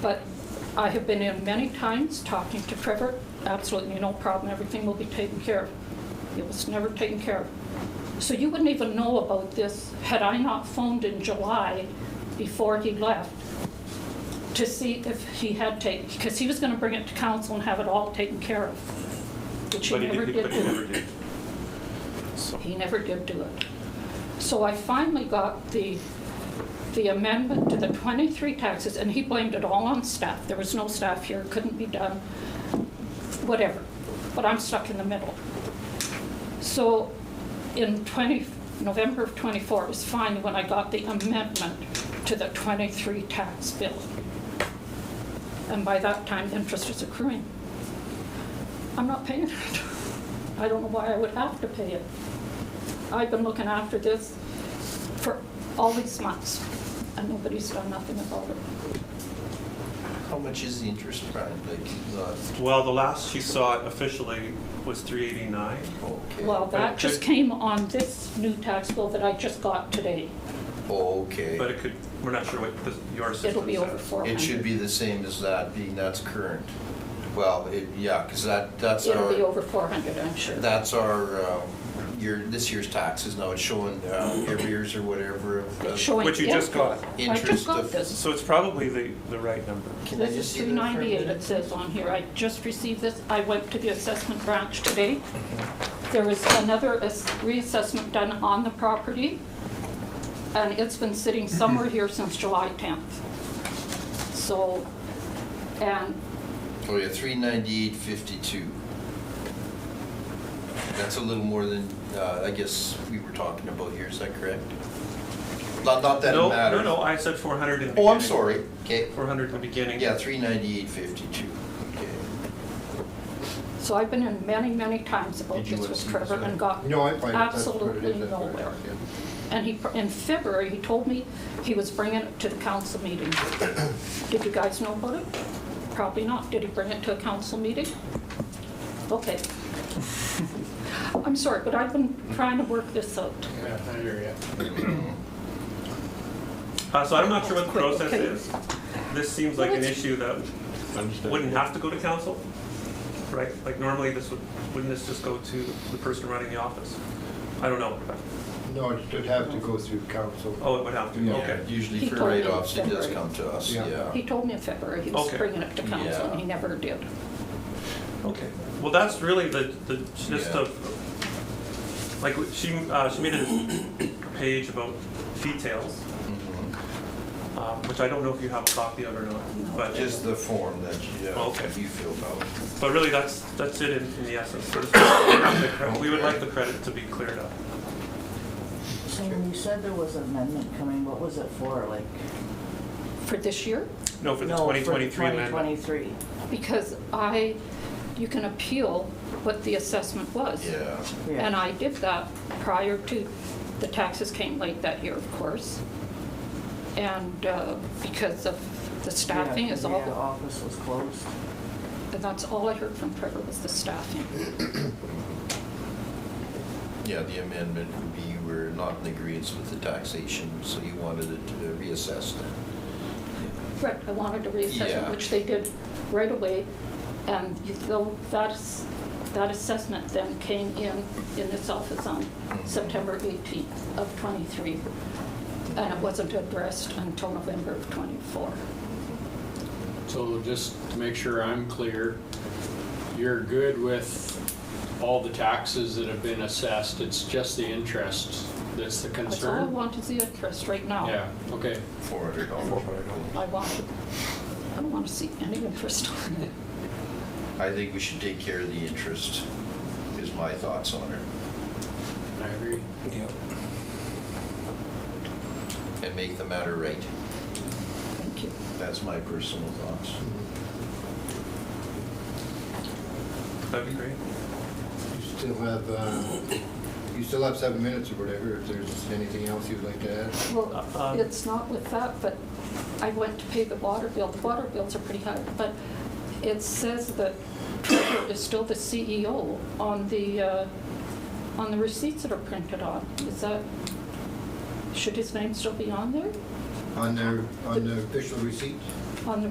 But I have been in many times talking to Trevor, absolutely no problem, everything will be taken care of. It was never taken care of. So you wouldn't even know about this had I not phoned in July before he left to see if he had taken, because he was going to bring it to council and have it all taken care of, which he But he never did, did but he do. never did. So, He never did do it. So I finally got the, the amendment to the 23 taxes, and he blamed it all on staff. There was no staff here, couldn't be done, whatever. But I'm stuck in the middle. So in 20, November of '24 was finally when I got the amendment to the 23 tax bill. And by that time, interest is accruing. I'm not paying it. I don't know why I would have to pay it. I've been looking after this for all these months, and nobody's done nothing about it. How much is the interest, Brian? Like, the- well, the last she saw it officially was 389. okay. Well, that just Okay. came on this new tax bill that I just got today. Okay. But it could, we're not sure what the- your system is. It'll be over at. four hundred. It should be the same as that, being that's current. Well, it, yeah, because that, that's our. It'll be over four hundred, I'm sure. That's our, um, year, this year's taxes, now it's showing uh, arrears or whatever of. It's of- showing Which you just April. got. I Interest just got of- this. So it's probably the, the right number. Can I This just is three see that for a ninety-eight, it minute? says on here. I just received this. I went to the assessment branch today. There was another ass- reassessment done on the property, and it's been sitting somewhere here since July tenth. So, and Oh, yeah, three ninety-eight fifty-two. That's a little more than, uh, I guess we were talking about here, is that correct? Not, not that it No, matters. No, no, I said 400 in the beginning. Oh, I'm sorry, okay, 400 in the beginning. yeah, three ninety-eight fifty-two, okay. so I've been in many, many times about Did you this wanna with see this Trevor other- and got No, I find that's what it absolutely is. That's what it nowhere. is, yeah. And he, in February, he told me he was bringing it to the council meeting. Did you guys know about it? Probably not. Did he bring it to a council meeting? Okay. I'm sorry, but I've been trying to work this out. Uh, So I'm not sure what the Quick, process okay. is. This seems like an Well, it's- issue that wouldn't have to go to council, right? Like normally this would, wouldn't this just go to the person running the office? I don't know. No, it should have to go through council. Oh, it would have to, Yeah. okay. Usually He for told me write-offs, it does February. come to us, Yeah. yeah. He told me in February he was Okay. bringing it to council, and he never did. Okay, well, that's really the, the gist Yeah. of, like, she, uh, she made a page about details, Mhm. um, which I don't know if you have a copy of or not, but, Just the form that you, uh, Okay. you filled out. but really, that's, that's it in, in the essence. So this- the cre- We would like the credit to be cleared up. So when you said there was an amendment coming, what was it for, like? For this year, No, for the No, for twenty twenty-three amendment. 2023. because I, you can appeal what the assessment was. Yeah. Yeah. And I did that prior to, the taxes came late that year, of course. And uh, because of the Yeah, staffing is 'cause the all, office was closed. and that's all I heard from Trevor was the staffing. Yeah, the amendment would be you were not in agreeance with the taxation, so you wanted it to be reassessed then. Right, I wanted to reassess Yeah. it, which they did right away. And you- though that's, that assessment then came in, in this office on September 18th of '23. And it wasn't addressed until November of '24. So just to make sure I'm clear, you're good with all the taxes that have been assessed, it's just the interest that's the That's all I concern? want is the interest right now. Yeah, okay. Four hundred dollars. I want, to- I don't want to see any interest on it. I think we should take care of the interest, is my thoughts on it, I agree. and make the matter right. Thank you. That's my personal thoughts. That'd be great. You still have, uh, you still have seven minutes or whatever, if there's anything else you'd like to add. Uh, uh, Well, it's not with that, but I went to pay the water bill. The water bills are pretty high, but it says that Trevor is still the CEO on the, uh, on the receipts that are printed on. Is that, should his name still be on there? On the, on the official receipt? On the